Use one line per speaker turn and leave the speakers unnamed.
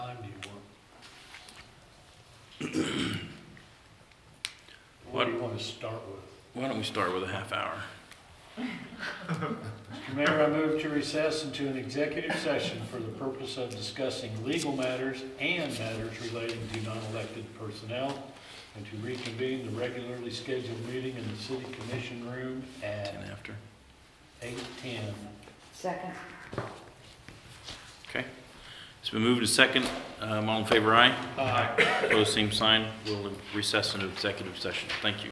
What do you want to start with?
Why don't we start with a half hour?
Mr. Mayor, I move to recess into an executive session for the purpose of discussing legal matters and matters relating to non-elected personnel, and to reconvene the regularly scheduled meeting in the city commission room
Ten
at
after.
eight ten.
Second.
Okay. It's been moved to second. Um, all in favor, aye.
Aye.
Opposed, same sign. We'll recess into executive session. Thank you.